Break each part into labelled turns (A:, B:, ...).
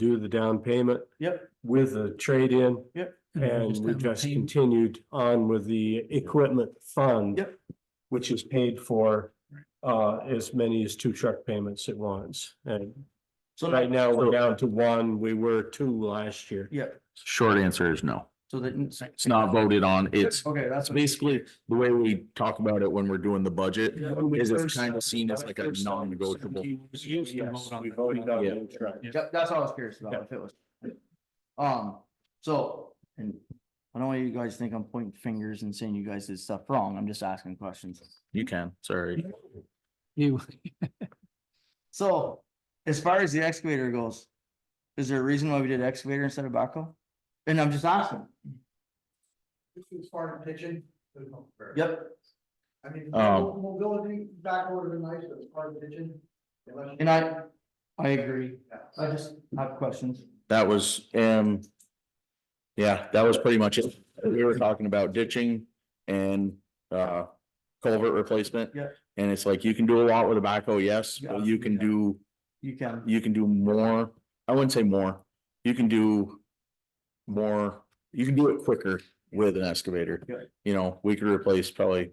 A: do the down payment.
B: Yep.
A: With the trade-in and
C: have
A: we
C: a
A: just
C: pay-
A: continued on with the equipment fund.
B: Yep.
A: Which is paid for uh as many as two truck payments at once. And
B: So
A: right
B: that,
A: now, we're
D: So-
A: down to one. We were two last year.
B: yeah,
D: Short answer is no.
B: so that.
D: It's not voted on. It's
B: Okay, that's. what-
D: basically the way we talk about it when we're doing the budget.
A: When we
D: Is it's
A: first-
D: kind of seen as like a non-negotiable.
A: Yes,
C: on
A: we
C: that.
A: voted on
D: Yeah.
A: the truck.
B: Yep, that's what I was curious about,
A: Yeah.
B: if it was. Um, so, and I don't want you guys to think I'm pointing fingers and saying you guys did stuff wrong, I'm just asking questions.
D: You can, sorry.
C: You,
B: So, as far as the excavator goes, is there a reason why we did excavator instead of backhoe? And I'm just asking,
E: This is Spartan pitching. there's no fair.
B: yep, Uh,
E: I mean,
D: Um,
E: mo- mobility back order is nice, but it's Spartan pitching. unless you-
B: and I, I agree,
E: Yeah.
B: I just have questions.
D: That was, um. Yeah, that was pretty much it. We were talking about ditching and, uh, culvert replacement.
B: Yeah.
D: And it's like, you can do a lot with a backhoe, yes, but
B: Yeah.
D: you can do,
B: You can,
D: you can do more. I wouldn't say more. You can do. More, you can do it quicker with an excavator.
B: Yeah.
D: You know, we could replace probably.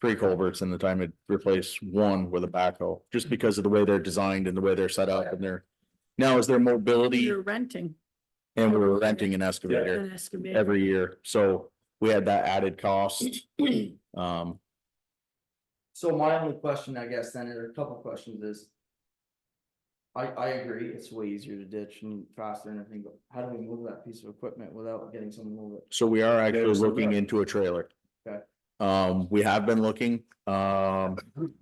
D: Three culverts in the time it replace one with a backhoe, just because of the way they're designed and the way they're set up and their. Now is their mobility.
F: You're renting
D: And we were renting an excavator
F: an excavator.
D: every year, so we had that added cost. Um,
B: so my only question, I guess, then, or a couple questions is. I, I agree, it's way easier to ditch and faster and everything, but how do we move that piece of equipment without getting someone to move it?
D: so we are actually
A: There's the
D: looking
A: truck.
D: into a trailer.
B: Okay.
D: Um, we have been looking, um,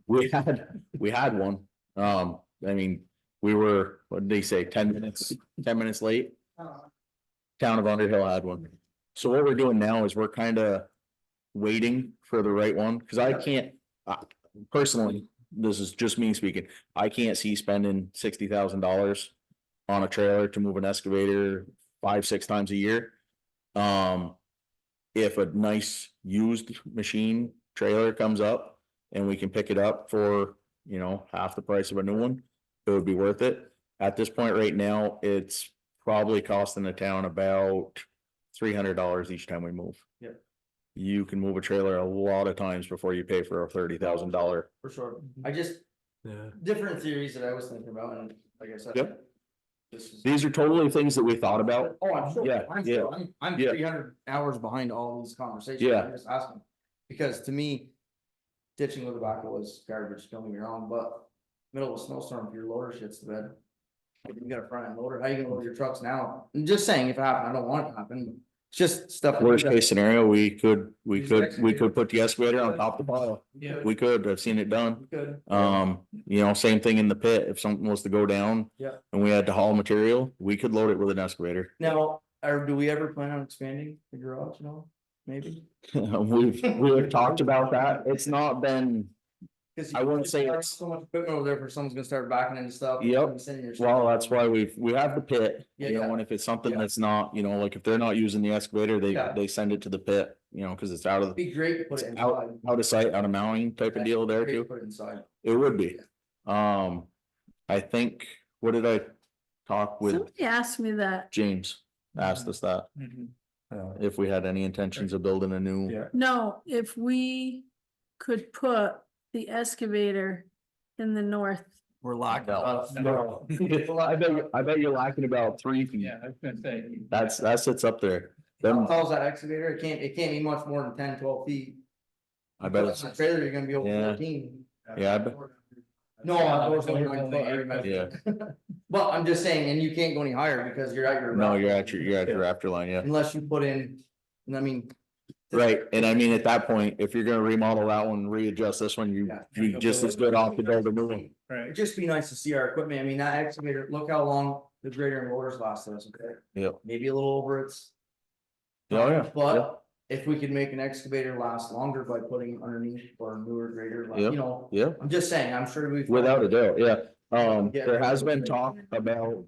D: we had, we had one, um, I mean, we were, what did they say, ten minutes, ten minutes late?
E: Uh,
D: Town of Underhill had one. So what we're doing now is we're kind of waiting for the right one, because I can't, I personally, this is just me speaking. I can't see spending sixty thousand dollars on a trailer to move an excavator five, six times a year. Um, if a nice used machine trailer comes up and we can pick it up for, you know, half the price of a new one, it would be worth it. At this point right now, it's probably costing the town about three hundred dollars each time we move.
B: Yep.
D: You can move a trailer a lot of times before you pay for a thirty thousand dollar.
B: For sure, I just,
A: Yeah.
B: different theories that I was thinking about, and like I said.
D: Yep.
B: This is.
D: These are totally things that we thought about.
B: Oh, I'm sure.
D: Yeah,
B: I'm
D: yeah,
B: sure. I'm, I'm
D: yeah.
B: three hundred hours behind all these conversations.
D: Yeah.
B: I'm Just asking, because to me, ditching with a backhoe is garbage, don't get me wrong, but middle of a snowstorm, if your loader shits the bed. if You got a front end loader, how you gonna load your trucks now? I'm just saying, if it happened, I don't want it to happen, it's just stuff.
D: Worst case scenario, we could, we could, we could put the excavator on top of the pile.
B: Yeah.
D: We could, I've seen it done.
B: Good.
D: Um, you know, same thing in the pit, if something was to go down.
B: Yeah.
D: And we had to haul material, we could load it with an excavator.
B: Now, are, do we ever plan on expanding the garage and all, maybe?
D: We've, we've talked about that. It's not been,
B: 'Cause
D: I
B: you-
D: wouldn't say
B: there's
D: it's-
B: So much equipment over there for someone's gonna start backing into stuff.
D: Yep. well, that's
B: why.
D: why we've, we have the pit. You
B: Yeah.
D: know, and if it's something
B: Yeah.
D: that's not, you know, like if they're not using the excavator, they,
B: Yeah.
D: they send it to the pit, you know, cause it's out of, the
B: Be great to put it
D: It's
B: inside.
D: out of sight, out of mounting type of deal there
B: Great to
D: too.
B: Put it inside.
D: It would be. Um, I think, what did I talk with
F: Somebody asked me that,
D: James? Asked us that,
A: Uh,
D: if we had any intentions of building a new.
A: Yeah.
F: no, if we could put the excavator in the north.
B: We're locked
D: No.
B: up.
A: No.
D: I bet, you- I bet you're lacking about three feet.
C: yeah, I was gonna say.
D: That's, that sits up there.
B: How
D: Them,
B: tall is that excavator? It can't, it can't be much more than 10, 12 feet.
D: I bet
B: Put
D: it's,
B: it in a Trailer, you're gonna be over
D: Yeah.
B: fourteen.
D: Yeah, I bet-
B: No, I was only nine foot, I
D: yeah,
B: remember. But I'm just saying, and you can't go any higher because you're at your.
D: no,
B: rack.
D: you're at your, you're at your rafter line, yeah.
B: Unless you put in, and I mean,
D: Right, and I mean, at that point, if you're gonna remodel that one, readjust this one, you,
B: Yeah.
D: you just as good off to build a new one.
C: Right.
B: it'd just be nice to see our equipment. I mean, that excavator, look how long the grader and loaders last us, okay?
D: Yeah.
B: Maybe a little over its
D: Oh, yeah.
B: But if we could make an excavator last longer by putting it underneath or a newer grader, like,
D: Yep.
B: you know,
D: Yeah,
B: I'm just saying, I'm sure we've.
D: without a doubt, yeah. Um, there has been talk about,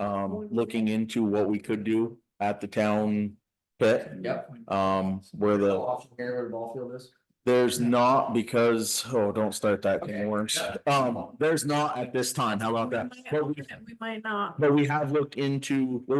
D: um, looking into what we could do at the town pit,
B: Yep.
D: um, where the,
B: Off Here where the ball field is.
D: There's not because, oh, don't start that
B: Okay.
D: can of worms. Um, there's not at this time. How about that? But we,
F: We might not.
D: but we have looked into,